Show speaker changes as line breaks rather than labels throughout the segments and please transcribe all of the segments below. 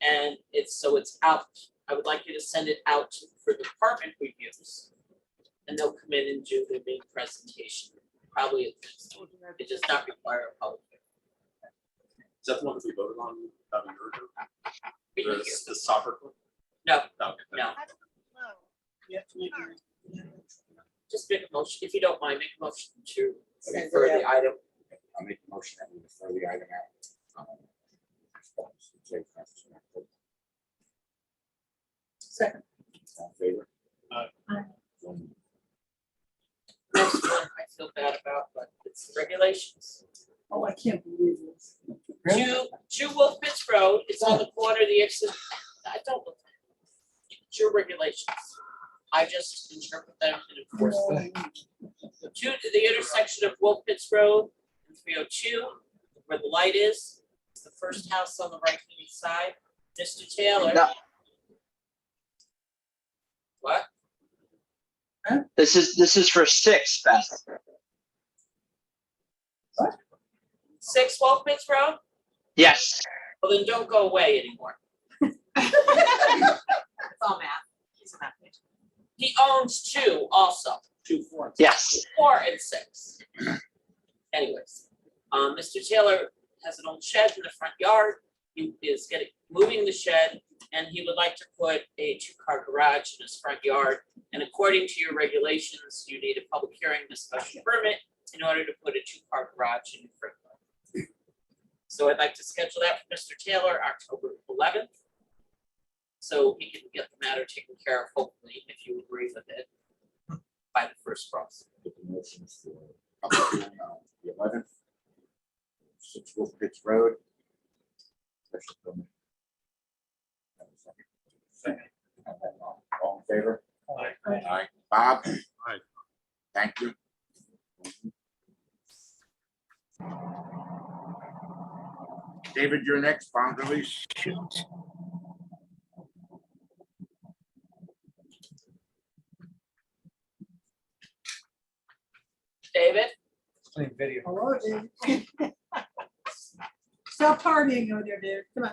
and it's, so it's out. I would like you to send it out to- for the department reviews. And they'll come in and do their big presentation, probably, at this- it does not require a public.
Is that the one that we voted on about a year ago?
hearing.
The, the soccer? one?
No,
Okay.
no,
Hello.
just make a motion, if you don't mind, make a motion to
Send it
refer the item.
I'll make a motion that we refer the item out. um, to the Constitution and Code.
Second.
All in favor?
Aye.
One.
Next one, I feel bad about, but it's regulations.
Oh, I can't believe this.
Two, two Wolf Pits Road, it's on the corner, of the exit, I don't. It's your regulations. I just interpret them and enforce them. Two, to the intersection of Wolf Pits Road and three oh two, where the light is, it's the first house on the right hand side, Mr. Taylor.
No.
What?
This is, this is for six, Beth.
Six Wolf Pits Road?
Yes.
Well, then don't go away anymore.
It's all math. He's a math major.
He owns two also, two forms.
Yes.
four and six. Anyways, um, Mr. Taylor has an old shed in the front yard. He is getting, moving the shed and he would like to put a two-car garage in his front yard. And according to your regulations, you need a public hearing and a special permit in order to put a two-car garage in your front yard. So I'd like to schedule that for Mr. Taylor, October eleventh. So he can get the matter taken care of, hopefully, if you agree with it by the first cross.
Make a motion for public hearing on the eleventh. Six Wolf Pits Road. Special permit. Have a second. Have that all- All in favor?
Aye.
Aye. Bob?
Aye.
Thank you. David, you're next, bond release.
David?
Playing video.
Hello, dude. Stop partying over there, dude. Come on.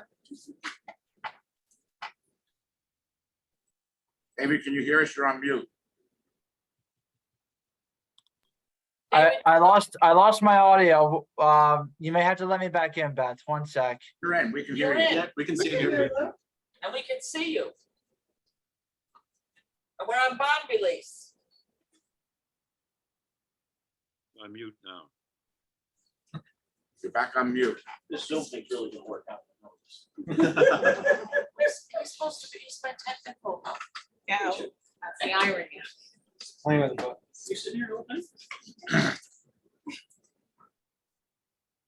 David, can you hear us? You're on mute.
I,
David,
I lost, I lost my audio. Um, you may have to let me back in, Beth. One sec.
You're in. We can
You're
hear
in.
you.
Yeah, we can see it here.
And we can see you. And we're on bond release.
I'm mute now.
You're back on mute.
This Zoom thing's really gonna work out.
We're, we're supposed to be, he's my technical. help.
Yeah, that's the irony.
Playing with the book.
You sitting here open?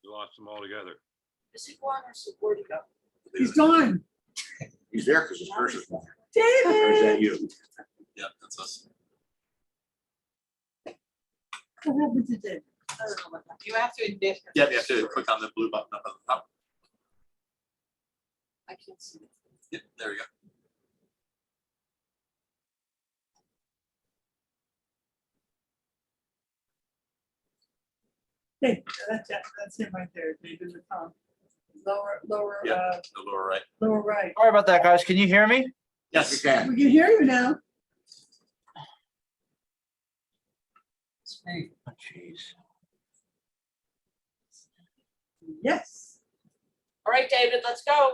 We Lost them all together.
Is he gone or so where'd he go?
He's gone.
He's there because his purse is gone. Or is
David.
that you?
Yeah, that's us.
What happened to David?
I don't know what that- You have to admit.
Yeah, you have to click on the blue button up at the top.
I can't see. him.
Yeah, there you go.
Hey, that's, that's him right there, David the Tom. Lower, lower,
Yeah.
uh,
The lower right.
lower right.
Sorry about that, guys. Can you hear me?
We
Yes.
can.
We can hear you now.
Oh, Jeez.
Yes.
All right, David, let's go.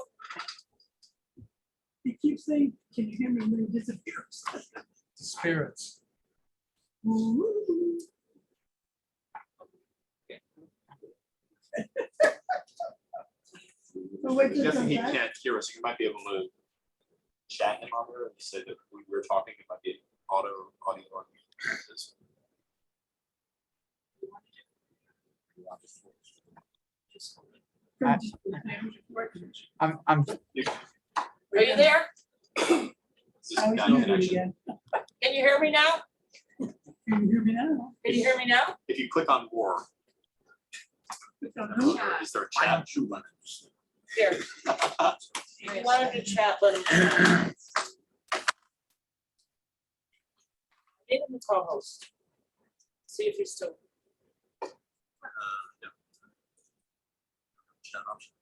He keeps saying, can you hear me? And then he disappears.
Spirits.
Ooh. So what
He
did
doesn't- He
come back?
can't hear us. You might be able to chat him on there and say that we were talking, it might be auto, audio. on mute.
I- I'm, I'm,
Are you there?
This
I
is
was
not
muted
connection.
again.
Can you hear me now?
Can you hear me now?
Can you hear me now?
If you click on more,
Click on who?
Yeah.
is there a
Why
chat?
don't you run it?
Here, if
Uh,
you wanted to chat, let him. know. Need him to co-host. See if he's still.
Uh, no. Chat option.